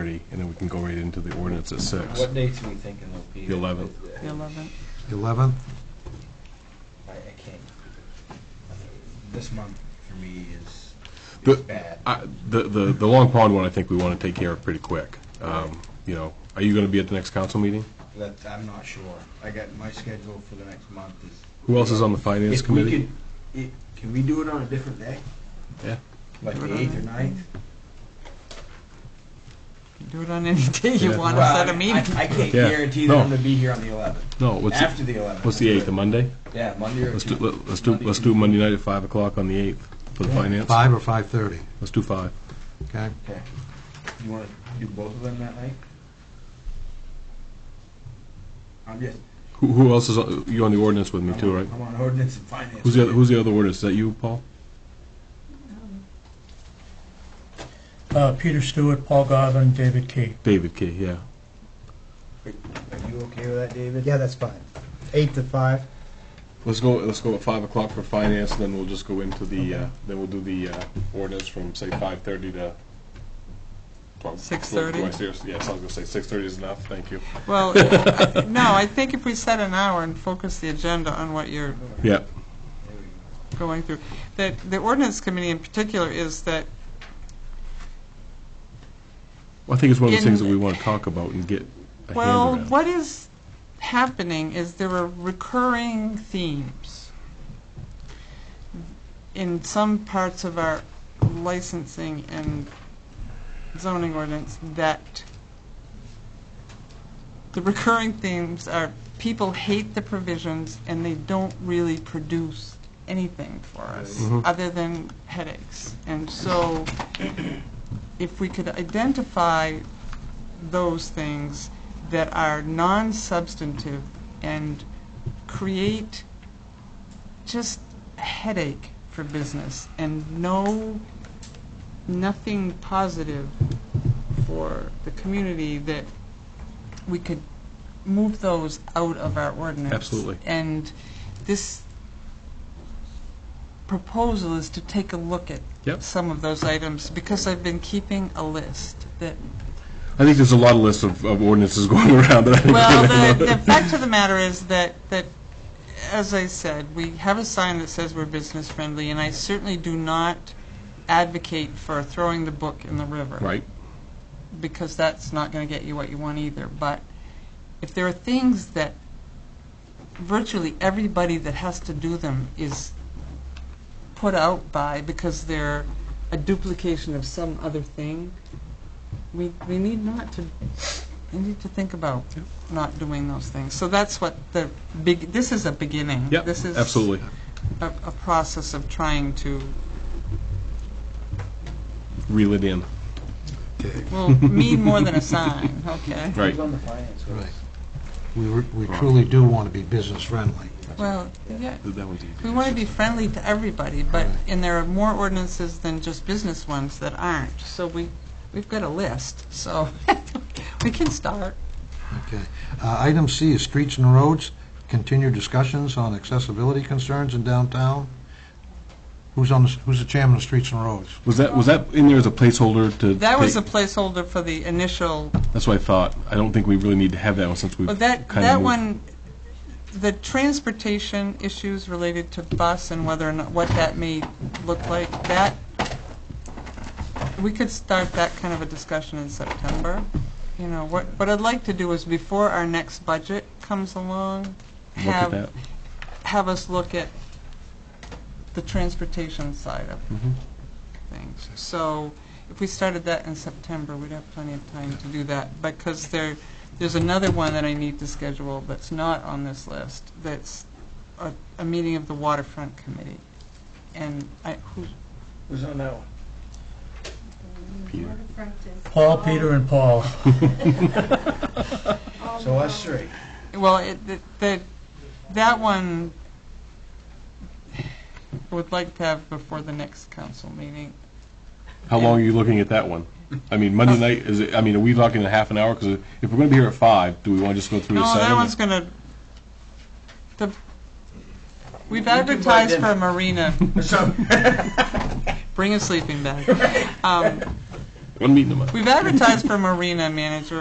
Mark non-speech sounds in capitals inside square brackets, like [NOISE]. and then we can go right into the ordinance at six. What dates are we thinking will be? The 11th. The 11th. 11th? I, I can't. Uh, This month for me is, is The- bad. I- The, the, the Long Pond one, I think we want to take care of pretty quick. Um, You know, are you going to be at the next council meeting? That, I'm not sure. I got, my schedule for the next month is. Who else is on the finance If we committee? could- i- Can we do it on a different day? Yeah. Like Do it the on eighth or a- ninth? Do it on any [LAUGHS] day you Yeah. want to Well, set I- a meeting. I I can't Yeah. guarantee that I'm No. gonna be here on the eleventh, No, what's, the- after the eleventh. what's the eighth, a Monday? Yeah, Monday or Let's do, Tuesday. let- let's do, Monday, let's do Monday night at five o'clock on the eighth for the finance. 5 or 5:30, Let's do five. okay? Okay. You wanna do both of them that night? I'm just. Who, who else is, on- you're on the ordinance with me I'm too, on- right? I'm on ordinance and finance. Who's the, other- who's the other ordinance? Is that you, Paul? Uh, Peter Stewart, Paul Godwin, David Key. David Key, yeah. Are you okay with that, David? Yeah, that's fine. Eight to five. Let's go, let's go at five o'clock for finance, then we'll just go into the, uh, then we'll do the uh, ordinance from, say, five-thirty to twelve. 6:30? Do I see- Yes, I was gonna say six-thirty is enough, thank you. [LAUGHS] Well, I- no, I think if we set an hour and focus the agenda on what you're Yeah. There we go. going through, that the ordinance committee in particular is that Well, I think it's one of the In- things that we want to talk about and get a hand Well, around. what is happening is there are recurring themes in some parts of our licensing and zoning ordinance that the recurring themes are people hate the provisions and they don't really produce anything for us Mhm. other than headaches. And so if we could identify those things that are non-substantive and create just a headache for business and no, nothing positive for the community, that we could move those out of our ordinance. Absolutely. And this proposal is to take a look at Yep. some of those items, because I've been keeping a list [LAUGHS] that I think there's a lot of lists of, of ordinances [LAUGHS] going around that I don't Well, the, remember. the fact of the matter is that, that, as I said, we have a sign that says we're business friendly, and I certainly do not advocate for throwing the book in the river. Right, Because that's not gonna get you what you want either, but if there are things that virtually everybody that has to do them is put out by because they're a duplication of some other thing, we, we need not to, we need to think about not doing those things. So that's what the big, this is a beginning. yep, This is absolutely. a, a process of trying to, Reel it in, [LAUGHS] well, mean more than a sign, okay? right. Who's on the finance? Right. We re- we truly do want to be business friendly. Well, yeah, That one's easy. we want to be friendly to everybody, but, Right. and there are more ordinances than just business ones that aren't. So we, we've got a list, so [LAUGHS] we can start. Okay. Uh, Item C is streets and roads, continued discussions on accessibility concerns in downtown. Who's on, the s- who's the chairman of Streets and Roads? Was that, was that in there as a placeholder to? That was a take- placeholder for the initial That's what I thought. I don't think we really need to have that one since we've Well, kind of that, moved. that one, the transportation issues related to bus and whether or not, what that may look like, that, we could start that kind of a discussion in September. You know, what, what I'd like to do is before our next budget comes along, Look at have, that. have us look at the transportation side of Mhm. things. So if we started that in September, we'd have plenty of time to do that, because there, there's another one that I need to schedule that's not on this list, that's a, a meeting of the waterfront committee. And I, who, Who's on that one? Peter. Waterfront is Paul, Peter, and Paul. all So around. us three. well, it, th- that, that one, I would like to have before the next council meeting. How long are you looking at that one? I mean, Monday night, is it, I mean, are we talking a half an hour? Because if we're going to be here at five, do we want to just go through to No, seven? that one's gonna, the, we've can buy advertised for dinner. a marina, So, bring a sleeping bag. Um, One meeting a month. We've advertised for marina manager